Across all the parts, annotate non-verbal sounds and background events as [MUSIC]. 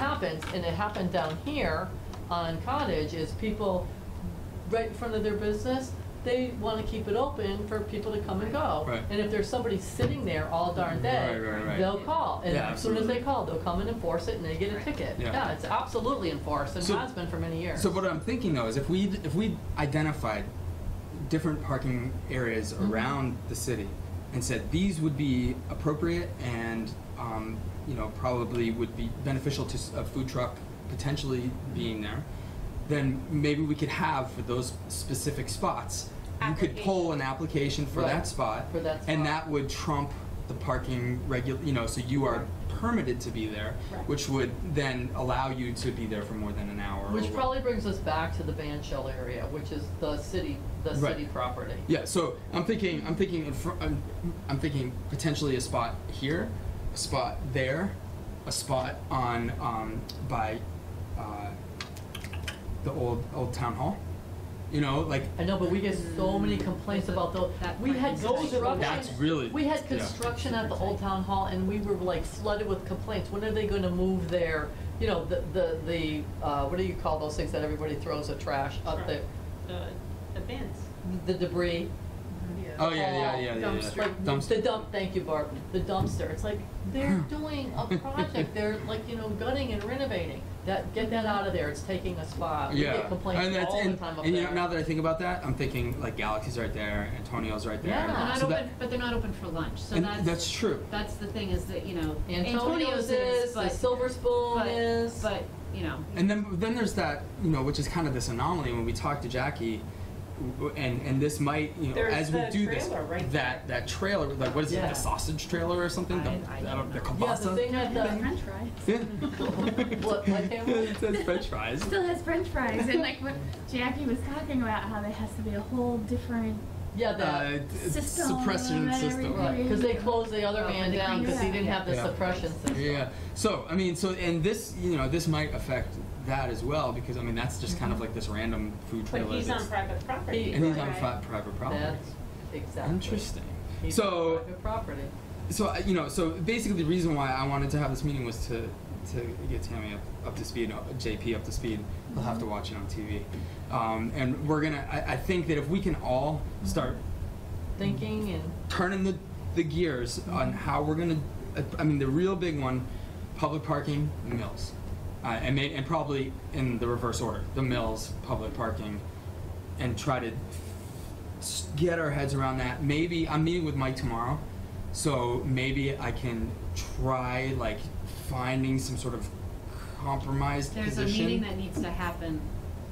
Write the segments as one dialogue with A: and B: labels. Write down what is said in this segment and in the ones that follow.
A: happens, and it happened down here on Cottage, is people right in front of their business, they wanna keep it open for people to come and go.
B: Right.
A: And if there's somebody sitting there all darn day,
B: Right, right, right.
A: they'll call, and
B: Yeah,
A: as soon as they
B: absolutely.
A: call, they'll come and enforce it, and they get a
C: Right.
A: ticket.
B: Yeah.
A: Yeah, it's absolutely enforced, and
B: So-
A: has been for many years.
B: So what I'm thinking though is if we if we identified different parking areas
A: Mhm.
B: around the city and said these would be appropriate and um, you know probably would be beneficial to s- a food truck potentially
A: Mm-hmm.
B: being there, then maybe we could have for those specific spots you could pull an application for
A: Right.
B: that spot
A: For that spot.
B: and that would trump the parking regu- you know so you are permitted to be there
C: Right.
B: which would then allow you to be there for more than an hour or
A: Which
B: what-
A: probably brings us back to the ban shell area, which is the city, the
B: Right.
A: city property.
B: Yeah, so I'm thinking, I'm thinking, in fr- I'm, I'm thinking potentially a spot here, a spot there, a spot on um, by uh, the old old town hall. You know, like
A: I know, but we get so many complaints about those,
C: That
A: we had
C: might be something.
A: construction.
B: That's really-
A: We had
B: yeah.
A: construction at the old town hall and we were like flooded with complaints, when are they gonna move their, you know, the, the, the, uh, what do you call those things that everybody throws the trash up
C: Sure.
A: there?
C: The, the bins.
A: The debris,
B: oh yeah yeah
A: Oh,
B: yeah yeah, yeah,
C: dumpster.
A: like, the dump, thank you Barb, the dumpster, it's like,
B: [LAUGHS]
A: they're doing a project, they're like, you know, gutting and renovating. That, get that out of there, it's taking a spot, we
B: Yeah,
A: get
B: and
A: complaints
B: that's
A: all the
B: and,
A: time up there.
B: and you know now that I think about that, I'm thinking like Galaxy's right there, Antonio's right there.
A: Yeah.
C: They're not
B: so that-
C: open, but they're not open for lunch, so
B: and
C: that's.
B: that's true.
C: That's the thing is that, you know.
A: Antonio's is, the
C: but-
A: Silver Spoon
C: but-
A: is.
C: But, you know,
B: And then then there's that you know which is kind of this anomaly when we talk to Jackie, w- and and this might you know
D: There's
B: as we
D: the
B: do this
D: trailer right
B: that that trailer like what is it
A: Yeah.
B: the sausage trailer or something the,
C: I- I don't
B: the
C: know.
A: yeah, the
B: kielbasa
A: thing at the
E: French fries.
B: yeah
A: [LAUGHS] what, what camera?
B: [LAUGHS] It says French fries
E: Still has French fries, and like what Jackie was talking about, how there has to be a whole different
A: Yeah,
B: uh,
A: that.
B: d-
E: system.
B: suppression
E: and
B: system
A: Right, because they closed the other
C: Oh,
A: man
C: they
A: down because he
E: cleaned it.
A: didn't have the
B: Uh, Yeah.
A: suppression system.
B: yeah so I mean so and this you know this might affect that as well because I mean that's just kind of
A: Mm-hmm.
B: like this random food
D: But
B: trailer
D: he's on
B: that's-
D: private property.
B: and he's on
E: Right.
B: fi- private property
A: That's exactly.
B: interesting
A: He's
B: so.
A: private property.
B: So I- you know, so basically the reason why I wanted to have this meeting was to to get Tammy up, up to speed, uh, JP up to speed. They'll have to watch it on TV, um, and we're gonna. I, I think that if we can all start
A: Thinking and
B: turning the the gears on how we're gonna, I mean, the real big one, public parking, mills, uh, and may, and probably in the reverse order, the mills, public parking, and try to s- get our heads around that. Maybe I'm meeting with Mike tomorrow, so maybe I can try like finding some sort of compromised
C: there's a
B: position.
C: meeting that needs to happen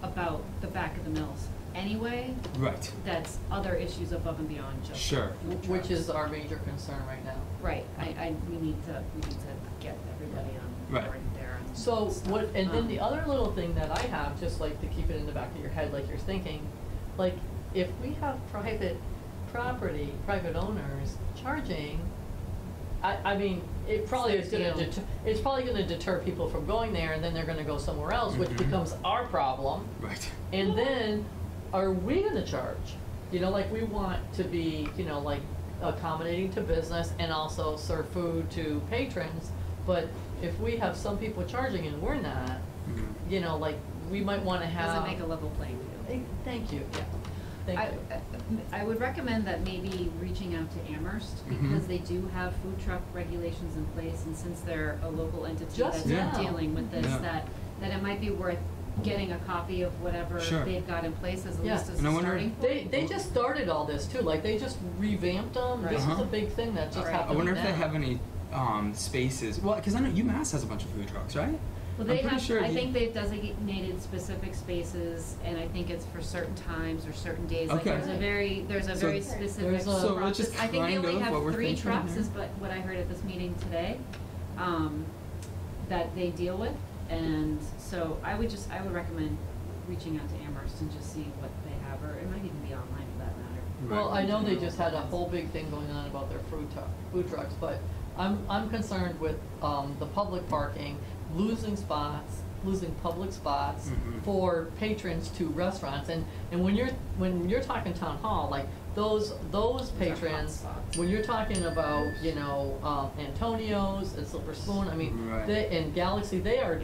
C: about the back of the mills anyway,
B: right.
C: that's other issues above and beyond just.
B: Sure.
C: food
A: which
C: trucks.
A: is our major concern right now.
C: Right, I, I, we need to, we need to get everybody on
B: Right.
C: board there and.
A: So
C: stuff.
A: what, and then
C: Um,
A: the other little thing that I have, just like to keep it in the back of your head, like you're thinking, like if we have private property, private owners charging, I, I mean, it probably is gonna
C: Big deal.
A: deter, it's probably gonna deter people from going there and then they're gonna go somewhere else, which
B: Mhm.
A: becomes our problem.
B: Right.
A: And then, are we gonna charge? You know, like, we want to be, you know, like, accommodating to business and also serve food to patrons, but if we have some people charging and we're not,
B: Mhm.
A: you know, like, we might wanna have.
C: Doesn't make a level playing field.
A: Eh, Thank you, yeah,
C: I- uh,
A: thank you.
C: I I would recommend that maybe reaching out to Amherst,
B: Mhm.
C: because they do have food truck regulations in place, and since they're a local entity
A: Just
C: that's
B: Yeah.
C: dealing with this,
B: Yeah.
C: that, that it might be worth getting a copy of whatever
B: Sure.
C: they've got in place as a
A: Yeah.
C: least as
B: And I
C: a
B: wonder-
C: starting point.
A: They, they just started all this too, like, they just revamped them, this is
B: Right.
A: a big thing that just
C: Right. I
B: Uh-huh. I
A: happened
B: wonder if they
A: now.
B: have any um, spaces. Well, because I know UMass has a bunch of food trucks, right?
C: Well,
B: I'm
C: they
B: pretty
C: have,
B: sure
C: I
B: you-
C: think they've designated specific spaces, and I think it's for certain times or certain days, like
B: Okay.
C: there's a very, there's a
B: So-
C: very specific
A: There's a-
B: So which is
C: process. I think they
B: kind
C: only
B: of what we're
C: have three
B: thinking
C: trucks
B: here.
C: is what, what I heard at this meeting today, um, that they deal with, and so I would just, I would recommend reaching out to Amherst and just seeing what they have, or it might even be online for that matter.
A: Well,
B: Right.
A: I know they just had a whole big thing going on about their food truck, food trucks, but I'm, I'm concerned with, um, the public parking, losing spots, losing public spots
B: Mhm.
A: for patrons to restaurants, and, and when you're, when you're talking town hall, like, those, those
C: Those are hot
A: patrons,
C: spots.
A: when you're talking about, you know, um, uh, Antonio's and Silver Spoon, I mean,
B: Right.
A: they, and Galaxy, they are